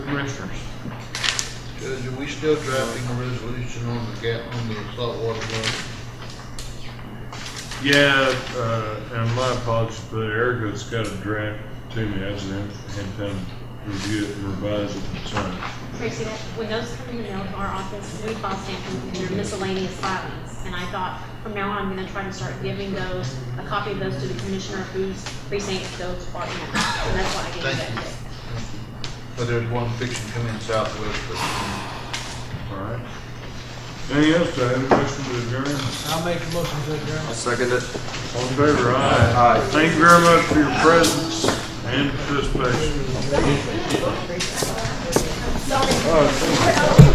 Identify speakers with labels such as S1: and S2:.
S1: Commissioners.
S2: Judge, are we still drafting a resolution on the gap, on the saltwater plant?
S1: Yeah, uh, and my apologies, but Erica's got a draft to me, I hasn't had time to review it and revise it and sign it.
S3: Tracy, that- when those come in the mail to our office, we file stamp them, and they're miscellaneous filings. And I thought, from now on, I'm gonna try to start giving those, a copy of those to the commissioner whose precinct those are in. So that's why I gave
S2: Thank
S3: that.
S2: you. But there's one fiction coming southwest, but
S1: All right. Anything else, do I have a question to adjourn?
S4: I'll make a motion to adjourn.
S5: I second it.
S1: All in favor, aye.
S5: Aye.
S1: Thank you very much for your presence and participation. Oh,